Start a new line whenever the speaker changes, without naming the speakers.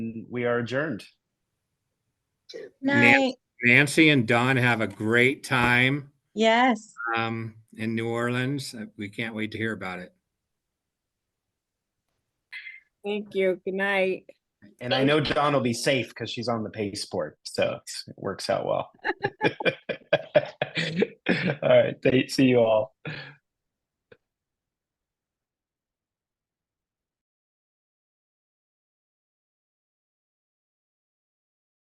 we are adjourned.
Nan-
Night.
Nancy and Don have a great time
Yes.
um, in New Orleans. Uh, We can't wait to hear about it.
Thank you. Good night.
And I know Dawn will be safe because she's on the pace board, so it's- it works out well. All right, th- see you all.